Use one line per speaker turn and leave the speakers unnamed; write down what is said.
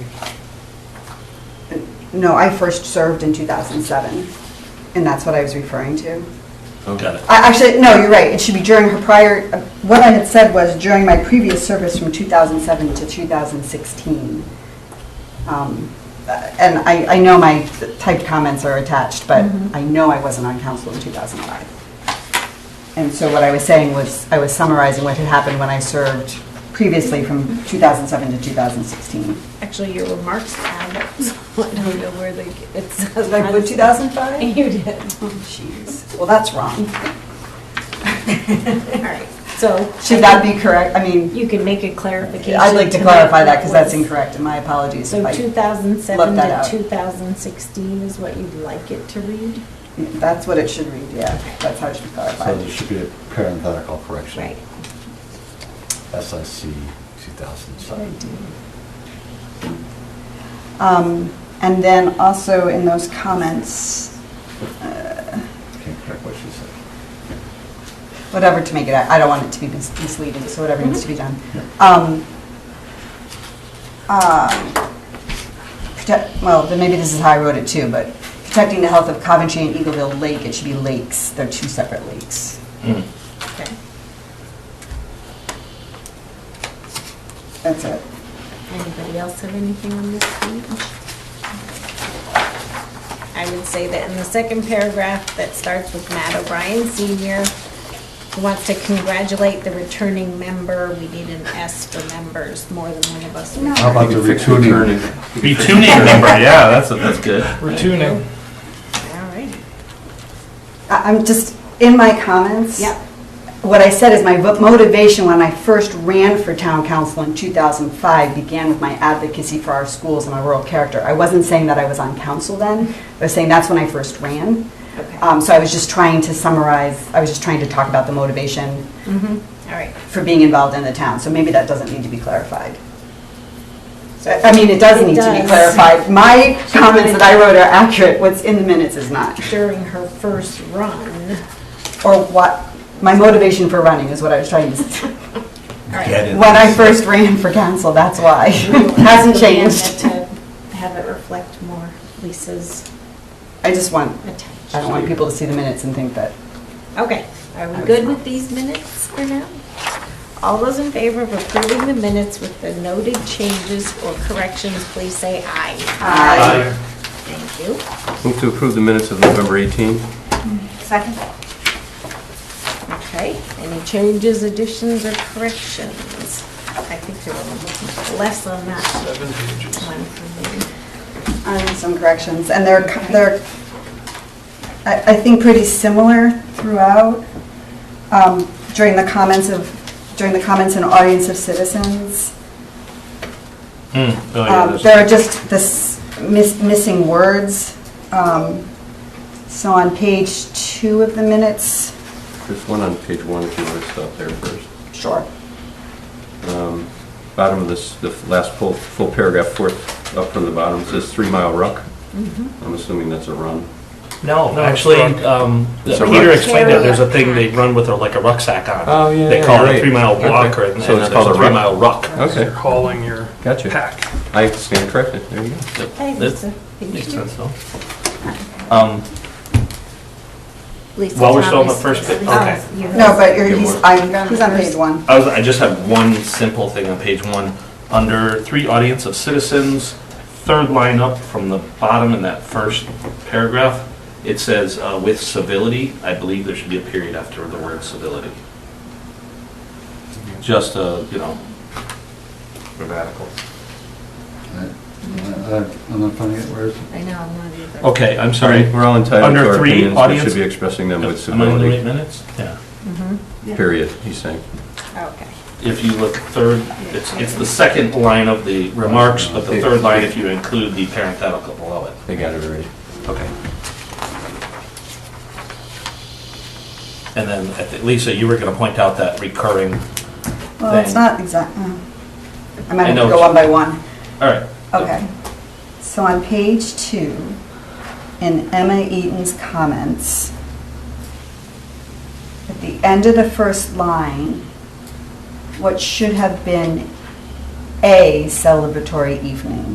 No, I first served in 2007, and that's what I was referring to.
Got it.
I- Actually, no, you're right, it should be during her prior, what I had said was during my previous service from 2007 to 2016. Um, And I, I know my typed comments are attached, but I know I wasn't on council in 2005. And so what I was saying was, I was summarizing what had happened when I served previously from 2007 to 2016.
Actually, your remarks add up, so I don't know where they, get- it's.
Did I put 2005?
You did.
Oh, Jeez, well, that's wrong.
All right, so.
Should that be correct? I mean,
You can make a clarification.
I'd like to clarify that because that's
what was-
incorrect, and my apologies if
So
I,
2007
that
to
out.
2016 is what you'd like it to read?
that's what it should read, yeah, that's how it should be
So there
clarified.
should be a parenthetical correction.
Right.
SIC 2007.
Um, And then also in those comments,
Can't correct what she said.
whatever to make it, I don't want it to be mis- misleading, so whatever needs to be done. Um, uh, protect- Well, then maybe this is how I wrote it too, but protecting the health of Coventry and Eagleville Lake, it should be lakes, they're two separate lakes.
Mm.
Okay.
That's it.
Anybody else have anything on this page? I would say that in the second paragraph that starts with Matt O'Brien Senior, who wants to congratulate the returning member, we need an S for members, more than one of us.
No.
How about the retuning?
Be tuning number, yeah, that's, that's good.
We're tuning.
All right.
I- I'm just, in my comments.
Yep.
What I said is my vo- motivation when I first ran for town council in 2005 began with my advocacy for our schools and my rural character. I wasn't saying that I was on council then, I was saying that's when I first ran.
Okay.
Um, So I was just trying to summarize, I was just trying to talk about the motivation
Mm-hmm. All right.
for being involved in the town, so maybe that doesn't need to be clarified. So, I mean, it does
It
need to be
does.
clarified. My
She
comments
wanted-
that I wrote are accurate, what's in the minutes is not.
During her first run.
or what, my motivation for running is what I was trying to say.
All right.
Get it.
When I first ran for council, that's why. Hasn't changed.
To Have it reflect more Lisa's
I just want, I
attention.
don't want people to see the minutes and think that.
Okay, are we good with these minutes for now? All those in favor of approving the minutes with the noted changes or corrections, please say aye.
Aye.
Thank you.
Move to approve the minutes of November 18.
Second. Okay, any changes, additions, or corrections? I think there were less on that
Seven pages.
one for me.
And some corrections, and they're, they're, I, I think pretty similar throughout. Um, During the comments of, during the comments and audience of citizens,
Mm. Oh, yeah,
Um,
that's-
There are just this miss- missing words. Um, So on page two of the minutes.
There's one on page one, if you want to stop there first.
Sure.
Um, Bottom of this, the last full, full paragraph, fourth up from the bottom, says Three Mile Ruck. I'm assuming that's a run.
No, actually, um,
It's a
Peter
ruck-
explained it, there's a
Carry
thing
a
they
pack.
run with a- like a rucksack on.
Oh, yeah,
They
yeah,
call it a
right.
three-mile
Okay.
walk, or, and
So
there's
it's called
a
a ruck.
three-mile ruck.
You're
Okay,
calling your
gotcha.
pack.
I stand corrected, there you go.
Okay,
That's-
Lisa, thank
Makes
you.
sense, though. Um,
Lisa,
While we're still on the
Thomas, Oh,
first bit,
Lisa,
okay.
you have-
No, but you're,
Good
he's,
work.
I'm, he's on page one.
I was, I just have one simple thing on page one. Under three audience of citizens, third line up from the bottom in that first paragraph, it says, uh, with civility, I believe there should be a period after the word civility. Just a, you know, grammatical.
I'm not uh, finding it, where is it?
I know, I'm not either.
Okay, I'm sorry.
Sorry, we're all entitled
Under
to our
three,
opinions, we
audience-
should be expressing them
Am I
with
in the right
civility,
minutes? Yeah.
Mhm,
period, he's saying.
Okay.
If you look third, it's, it's the second line of the remarks, but the third line if you include the parenthetical below it.
They got it already.
Okay. And then, I thi- Lisa, you were going to point out that recurring,
Well, it's
Thing.
not exact, oh. I might have
I
to
know
go one
what
by one.
all right.
Okay. So on page two, in Emma Eaton's comments, at the end of the first line, what should have been a celebratory evening